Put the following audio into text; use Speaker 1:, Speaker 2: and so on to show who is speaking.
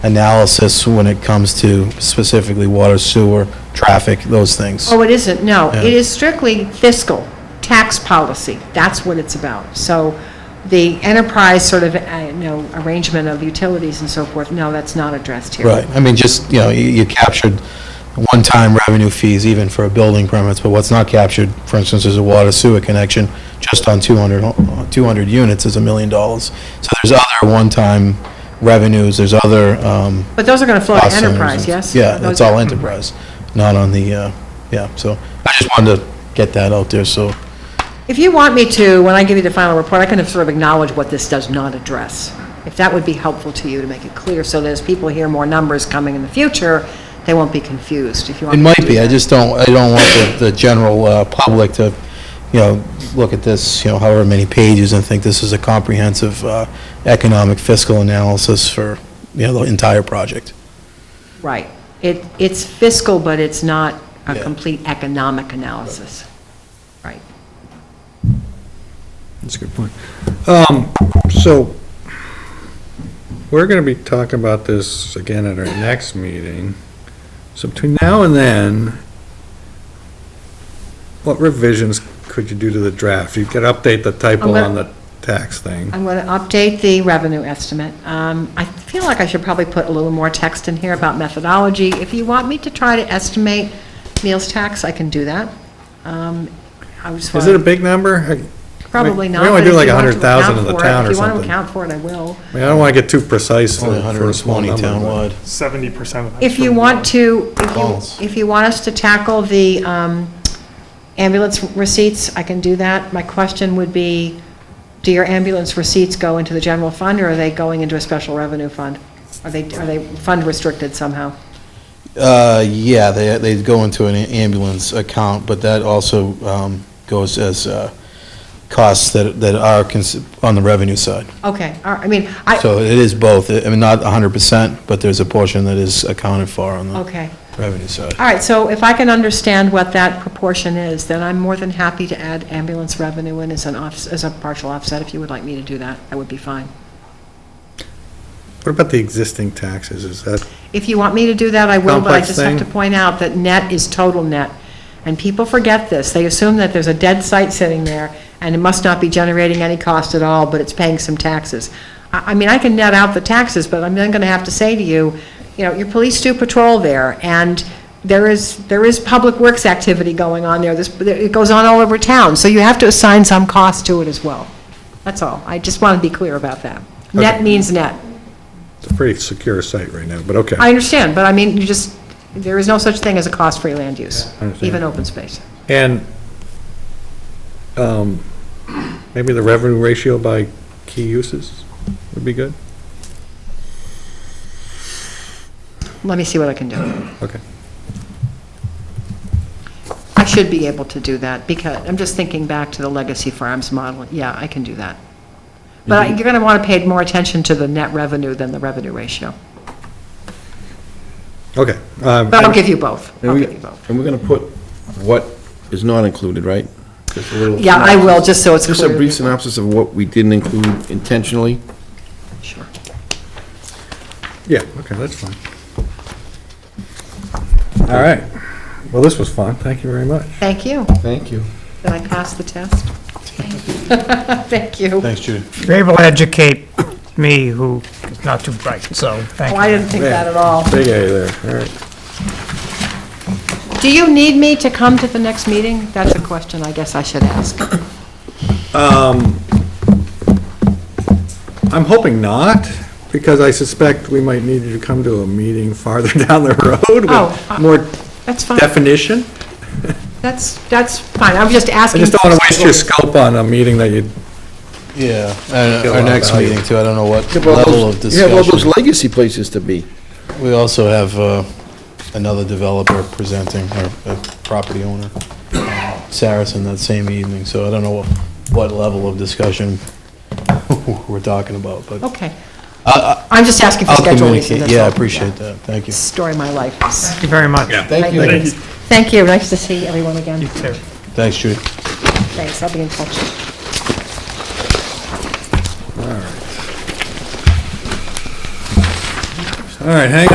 Speaker 1: analysis when it comes to specifically water, sewer, traffic, those things.
Speaker 2: Oh, it isn't, no.
Speaker 1: Yeah.
Speaker 2: It is strictly fiscal, tax policy. That's what it's about. So the enterprise sort of, uh, you know, arrangement of utilities and so forth, no, that's not addressed here.
Speaker 1: Right, I mean, just, you know, you you captured one-time revenue fees even for building permits, but what's not captured, for instance, is a water sewer connection just on 200, ho- 200 units is a million dollars. So there's other one-time revenues, there's other, um,
Speaker 2: But those are going to flow to
Speaker 1: cost centers
Speaker 2: enterprise,
Speaker 1: and-
Speaker 2: yes?
Speaker 1: Yeah,
Speaker 2: Those-
Speaker 1: it's all enterprise, not on the, uh, yeah, so I just wanted to get that out there, so,
Speaker 2: If you want me to, when I give you the final report, I can sort of acknowledge what this does not address. If that would be helpful to you to make it clear, so that as people hear more numbers coming in the future, they won't be confused, if you want.
Speaker 1: It
Speaker 2: me to
Speaker 1: might
Speaker 2: do
Speaker 1: be, I
Speaker 2: that.
Speaker 1: just don't, I don't want the, the general uh, public to, you know, look at this, you know, however many pages and think this is a comprehensive uh, economic fiscal analysis for, you know, the entire project.
Speaker 2: Right. It, it's fiscal, but it's not a
Speaker 1: Yeah.
Speaker 2: complete economic analysis. Right.
Speaker 3: That's a good point. Um, So, we're going to be talking about this again at our next meeting. So between now and then, what revisions could you do to the draft? You could update the typo
Speaker 2: gonna-
Speaker 3: on the tax thing.
Speaker 2: I'm going to update the revenue estimate. Um, I feel like I should probably put a little more text in here about methodology. If you want me to try to estimate meals tax, I can do that. Um, I just
Speaker 3: Is it a
Speaker 2: want,
Speaker 3: big number? I mean,
Speaker 2: probably not.
Speaker 3: We
Speaker 2: but
Speaker 3: only do
Speaker 2: if
Speaker 3: like
Speaker 2: you want to
Speaker 3: 100,000 in
Speaker 2: account
Speaker 3: the
Speaker 2: for it-
Speaker 3: town or
Speaker 2: If you want to
Speaker 3: something. I
Speaker 2: account for it, I will.
Speaker 3: mean, I don't want to get too precise
Speaker 1: Only
Speaker 3: for for a small
Speaker 1: 120
Speaker 3: number. but-
Speaker 1: townwide.
Speaker 4: seventy percent of that.
Speaker 2: If you want to, if
Speaker 1: Balls.
Speaker 2: you, if you want us to tackle the um, ambulance receipts, I can do that. My question would be, do your ambulance receipts go into the general fund, or are they going into a special revenue fund? Are they, are they fund restricted somehow?
Speaker 1: Uh, yeah, they, they go into an ambulance account, but that also um, goes as uh, costs that, that are cons- on the revenue side.
Speaker 2: Okay, all right, I mean, I,
Speaker 1: So it is both, I mean, not 100%, but there's a portion that is accounted for on the
Speaker 2: okay.
Speaker 1: revenue side.
Speaker 2: All right, so if I can understand what that proportion is, then I'm more than happy to add ambulance revenue in as an off, as a partial offset, if you would like me to do that, that would be fine.
Speaker 3: What about the existing taxes? Is that,
Speaker 2: If you want me to do that, I will, but I
Speaker 3: Complex
Speaker 2: just have to
Speaker 3: thing.
Speaker 2: point out that net is total net. And people forget this. They assume that there's a dead site sitting there, and it must not be generating any cost at all, but it's paying some taxes. I, I mean, I can net out the taxes, but I'm then gonna have to say to you, you know, your police do patrol there, and there is, there is public works activity going on there. This, it goes on all over town, so you have to assign some cost to it as well. That's all. I just want to be clear about that. Net
Speaker 3: Okay.
Speaker 2: means net.
Speaker 3: it's a pretty secure site right now, but okay.
Speaker 2: I understand, but I mean, you just, there is no such thing as a cost-free land use,
Speaker 3: I understand.
Speaker 2: even open space.
Speaker 3: And um, maybe the revenue ratio by key uses would be good?
Speaker 2: Let me see what I can do.
Speaker 3: Okay.
Speaker 2: I should be able to do that, because, I'm just thinking back to the Legacy Farms model, yeah, I can do that. But I- you're going to want to pay more attention to the net revenue than the revenue ratio.
Speaker 3: Okay. um,
Speaker 2: But I'll give you both,
Speaker 5: And
Speaker 2: I'll
Speaker 5: we-
Speaker 2: give you both.
Speaker 5: And we're going to put what is not included, right? Just a little
Speaker 2: Yeah, I will, just so it's
Speaker 5: Just a
Speaker 2: clear.
Speaker 5: brief synopsis of what we didn't include intentionally.
Speaker 2: Sure.
Speaker 3: Yeah, okay, that's fine. All right. Well, this was fun. Thank you very much.
Speaker 2: Thank you.
Speaker 5: Thank you.
Speaker 2: Did I pass the test? Thank you.
Speaker 1: Thanks, Judy.
Speaker 6: They will educate me, who is not too bright, so thank
Speaker 2: Oh,
Speaker 6: you.
Speaker 2: I didn't think that at all.
Speaker 3: Big A there, all right.
Speaker 2: Do you need me to come to the next meeting? That's a question I guess I should ask.
Speaker 3: I'm hoping not, because I suspect we might need you to come to a meeting farther down the road
Speaker 2: Oh, uh,
Speaker 3: with more
Speaker 2: That's fine.
Speaker 3: definition.
Speaker 2: That's, that's fine, I'm just
Speaker 3: I
Speaker 2: asking.
Speaker 3: just don't want to waste your scope on a meeting that you,
Speaker 1: Yeah, and
Speaker 3: Get a
Speaker 1: our
Speaker 3: lot of
Speaker 1: next
Speaker 3: value.
Speaker 1: meeting too, I don't know what
Speaker 5: You have all
Speaker 1: level
Speaker 5: those-
Speaker 1: of
Speaker 5: You have all those
Speaker 1: discussion.
Speaker 5: legacy places to be.
Speaker 1: We also have uh, another developer presenting, or a property owner, Saracen, that same evening, so I don't know what level of discussion we're talking about, but
Speaker 2: Okay. I'm just asking for
Speaker 1: I'll
Speaker 2: schedule reasons.
Speaker 1: communicate,
Speaker 2: that's
Speaker 1: yeah, I
Speaker 2: all.
Speaker 1: appreciate that, thank you.
Speaker 2: Story of my life.
Speaker 6: Thank you very much.
Speaker 5: Thank you.
Speaker 2: Thank you. Thank you, nice to see everyone again.
Speaker 6: You too.
Speaker 1: Thanks, Judy.
Speaker 2: Thanks, I'll be in touch.
Speaker 3: All right, hang